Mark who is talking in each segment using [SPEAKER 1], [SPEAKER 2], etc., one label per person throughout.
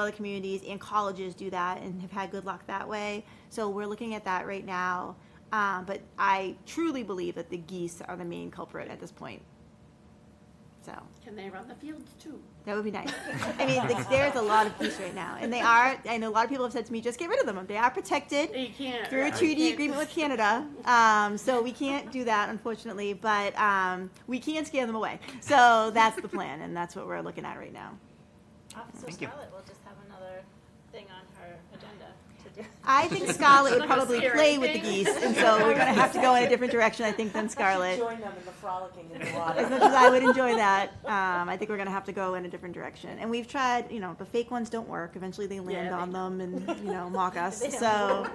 [SPEAKER 1] other communities and colleges do that and have had good luck that way. So we're looking at that right now. Um, but I truly believe that the geese are the main culprit at this point. So
[SPEAKER 2] Can they run the fields too?
[SPEAKER 1] that would be nice. I mean, like, there's a lot of geese right now, and they are. I know a lot of people have said to me, "Just get rid of them. They are protected."
[SPEAKER 2] You can't.
[SPEAKER 1] through a
[SPEAKER 2] right,
[SPEAKER 1] treaty
[SPEAKER 2] can't-
[SPEAKER 1] agreement with Canada. Um, so we can't do that, unfortunately, but um, we can scare them away. So that's the plan, and that's what we're looking at right now.
[SPEAKER 3] Officer
[SPEAKER 4] Thank you.
[SPEAKER 3] Scarlett will just have another thing on her agenda to do.
[SPEAKER 1] I think Scarlett would
[SPEAKER 2] Like a
[SPEAKER 1] probably
[SPEAKER 2] scary
[SPEAKER 1] play with the
[SPEAKER 2] thing.
[SPEAKER 1] geese, and so we're going to have to go in a different direction, I think, than Scarlett.
[SPEAKER 5] Join them in the frolicking in the
[SPEAKER 1] As
[SPEAKER 5] water.
[SPEAKER 1] much as I would enjoy that, um, I think we're going to have to go in a different direction. And we've tried, you know, the fake ones don't work. Eventually, they land
[SPEAKER 2] they
[SPEAKER 1] on them and you know mock us.
[SPEAKER 3] They don't
[SPEAKER 1] so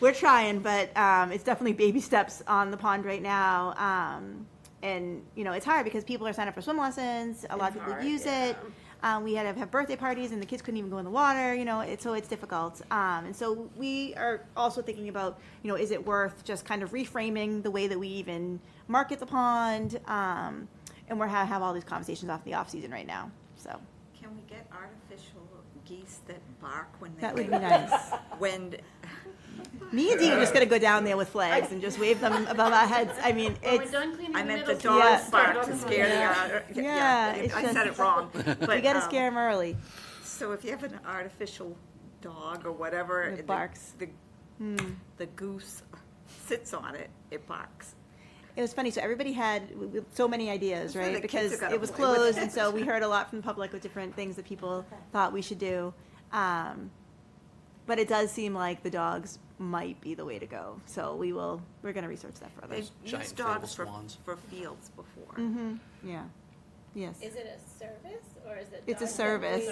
[SPEAKER 1] we're trying, but um, it's definitely baby steps on the pond right now. Um, and you know, it's hard because people are signing up for swim lessons. A lot of
[SPEAKER 2] It's
[SPEAKER 1] people
[SPEAKER 2] hard,
[SPEAKER 1] use it.
[SPEAKER 2] yeah.
[SPEAKER 1] Um, we had to have birthday parties, and the kids couldn't even go in the water. You know, it, so it's difficult. Um, and so we are also thinking about, you know, is it worth just kind of reframing the way that we even market the pond? Um, and we're ha- have all these conversations off the off season right now. So
[SPEAKER 6] Can we get artificial geese that bark when they?
[SPEAKER 1] that would be
[SPEAKER 6] wake
[SPEAKER 1] nice.
[SPEAKER 6] up? When,
[SPEAKER 1] Me and Dee are just gonna go down there with flags and just wave them above our heads. I mean,
[SPEAKER 2] When we're
[SPEAKER 1] it's
[SPEAKER 2] done cleaning
[SPEAKER 6] I
[SPEAKER 2] the
[SPEAKER 6] meant the
[SPEAKER 2] middle school.
[SPEAKER 1] Yeah.
[SPEAKER 6] dogs bark
[SPEAKER 2] start
[SPEAKER 6] to
[SPEAKER 2] on
[SPEAKER 6] scare the,
[SPEAKER 1] Yeah.
[SPEAKER 6] ar-
[SPEAKER 1] Yeah,
[SPEAKER 6] yeah,
[SPEAKER 1] it's
[SPEAKER 6] I
[SPEAKER 1] just-
[SPEAKER 6] said it wrong.
[SPEAKER 1] you
[SPEAKER 6] but,
[SPEAKER 1] gotta
[SPEAKER 6] um,
[SPEAKER 1] scare them early.
[SPEAKER 6] So if you have an artificial dog or whatever.
[SPEAKER 1] That
[SPEAKER 6] the-
[SPEAKER 1] barks. Hmm.
[SPEAKER 6] The, the goose sits on it, it barks.
[SPEAKER 1] It was funny. So everybody had w- w- so many ideas,
[SPEAKER 6] So the
[SPEAKER 1] right?
[SPEAKER 6] kids
[SPEAKER 1] Because
[SPEAKER 6] have gotta
[SPEAKER 1] it was
[SPEAKER 6] play with
[SPEAKER 1] closed,
[SPEAKER 6] it.
[SPEAKER 1] and so we heard a lot from the public with different things that people thought we should do. Um, but it does seem like the dogs might be the way to go. So we will. We're going to research that further.
[SPEAKER 6] They've
[SPEAKER 4] giant
[SPEAKER 6] used dogs
[SPEAKER 4] inflatable
[SPEAKER 6] for,
[SPEAKER 4] swans.
[SPEAKER 6] for fields before.
[SPEAKER 1] hmm Yeah. Yes.
[SPEAKER 3] Is it a service or is it?
[SPEAKER 1] It's a
[SPEAKER 3] dog-
[SPEAKER 1] service.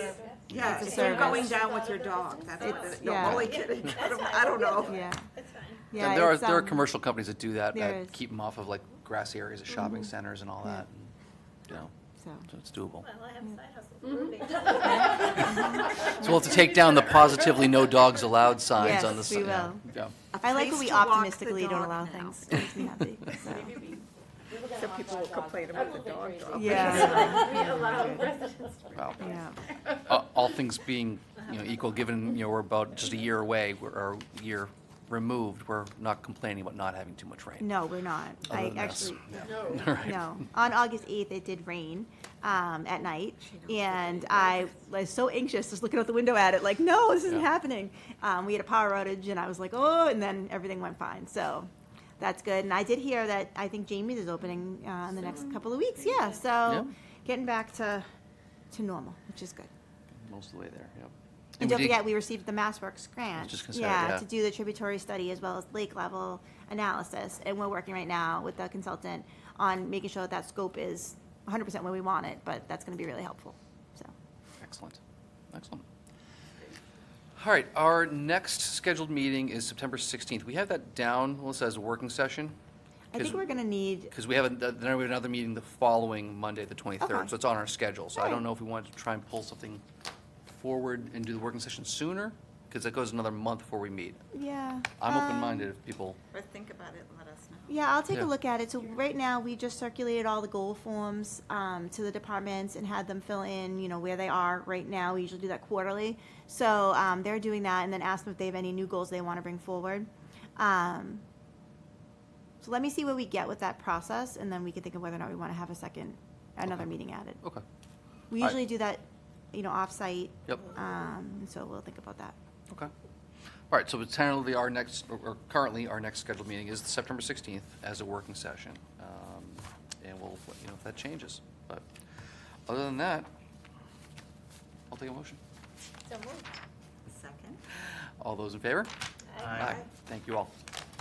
[SPEAKER 6] Yeah,
[SPEAKER 1] It's a
[SPEAKER 6] if you're going
[SPEAKER 1] service.
[SPEAKER 6] down with your dog, that's what, the-
[SPEAKER 1] Yeah.
[SPEAKER 6] no, only kidding, I don't- I don't know.
[SPEAKER 1] Yeah.
[SPEAKER 3] That's fine.
[SPEAKER 1] Yeah.
[SPEAKER 4] And there are
[SPEAKER 1] it's,
[SPEAKER 4] there are
[SPEAKER 1] um,
[SPEAKER 4] commercial companies that do that
[SPEAKER 1] there
[SPEAKER 4] that
[SPEAKER 1] is. Mm-hmm.
[SPEAKER 4] keep them off of like grassy areas of shopping centers and all
[SPEAKER 1] Yeah.
[SPEAKER 4] that. And, you know,
[SPEAKER 1] So.
[SPEAKER 4] so it's doable.
[SPEAKER 3] Well, I have
[SPEAKER 1] Mm.
[SPEAKER 3] side hustles. moving.
[SPEAKER 1] Mm-hmm.
[SPEAKER 4] So we'll have to take down the positively no dogs allowed signs on the
[SPEAKER 1] Yes, we
[SPEAKER 4] si- yeah,
[SPEAKER 1] will.
[SPEAKER 4] yeah.
[SPEAKER 1] I like when
[SPEAKER 6] place
[SPEAKER 1] we
[SPEAKER 6] to walk the
[SPEAKER 1] optimistically don't
[SPEAKER 6] dog
[SPEAKER 1] allow
[SPEAKER 6] now.
[SPEAKER 1] things. It makes me happy. So.
[SPEAKER 6] So people will complain about the dog dog.
[SPEAKER 1] Yeah.
[SPEAKER 2] We allow residents to
[SPEAKER 4] Wow.
[SPEAKER 1] Yeah.
[SPEAKER 4] Uh, all things being you know equal, given you know we're about just a year away we're, or a year removed, we're not complaining about not having too much rain.
[SPEAKER 1] No, we're not.
[SPEAKER 4] Other
[SPEAKER 1] I
[SPEAKER 4] than this.
[SPEAKER 1] actually.
[SPEAKER 2] know.
[SPEAKER 4] All right.
[SPEAKER 1] No. On August 8th, it did rain um, at night. And I was so anxious, just looking out the window at it, like, no, this isn't
[SPEAKER 4] Yeah.
[SPEAKER 1] happening. Um, we had a power outage, and I was like, oh, and then everything went fine. So that's good. And I did hear that I think Jamie's is opening uh, in the next couple of weeks. Yeah. So
[SPEAKER 4] Yeah.
[SPEAKER 1] getting back to, to normal, which is good.
[SPEAKER 4] Most of the way there. Yep.
[SPEAKER 1] And
[SPEAKER 4] we
[SPEAKER 1] don't
[SPEAKER 4] did-
[SPEAKER 1] forget, we received the MassWorks grant.
[SPEAKER 4] just gonna say that, yeah.
[SPEAKER 1] To do the tributary study as well as lake level analysis. And we're working right now with the consultant on making sure that that scope is 100% where we want it, but that's going to be really helpful, so.
[SPEAKER 4] Excellent. Excellent. All right, our next scheduled meeting is September 16th. We have that down, Melissa, as a working session?
[SPEAKER 1] I think we're going to need,
[SPEAKER 4] Because we have, a- then we have another meeting the following Monday, the 23rd,
[SPEAKER 1] Okay.
[SPEAKER 4] so it's on our schedule. So I
[SPEAKER 1] All
[SPEAKER 4] don't
[SPEAKER 1] right.
[SPEAKER 4] know if we want to try and pull something forward and do the working session sooner, because that goes another month before we meet.
[SPEAKER 1] yeah.
[SPEAKER 4] I'm
[SPEAKER 1] um,
[SPEAKER 4] open-minded if people,
[SPEAKER 6] Or think about it and let us know.
[SPEAKER 1] Yeah, I'll take a
[SPEAKER 4] Yeah.
[SPEAKER 1] look at it. So right now, we just circulated all the goal forms um, to the departments and had them fill in, you know, where they are right now. We usually do that quarterly. So um, they're doing that and then ask them if they have any new goals they want to bring forward. Um, So let me see where we get with that process and then we can think of whether or not we want to have a second, another
[SPEAKER 4] Okay. Oh,
[SPEAKER 1] meeting added.
[SPEAKER 4] okay,
[SPEAKER 1] We
[SPEAKER 4] All right.
[SPEAKER 1] usually do that, you know, off-site.
[SPEAKER 4] yep,
[SPEAKER 1] um, and So we'll think about that.
[SPEAKER 4] okay. All right, so it's tentatively our next, or- or currently, our next scheduled meeting is September 16th as a working session. Um, And we'll, let you know, if that changes. But other than that, I'll take a motion.
[SPEAKER 3] So moved.
[SPEAKER 6] Second?
[SPEAKER 4] All those in favor?
[SPEAKER 3] Aye.
[SPEAKER 4] Thank you all.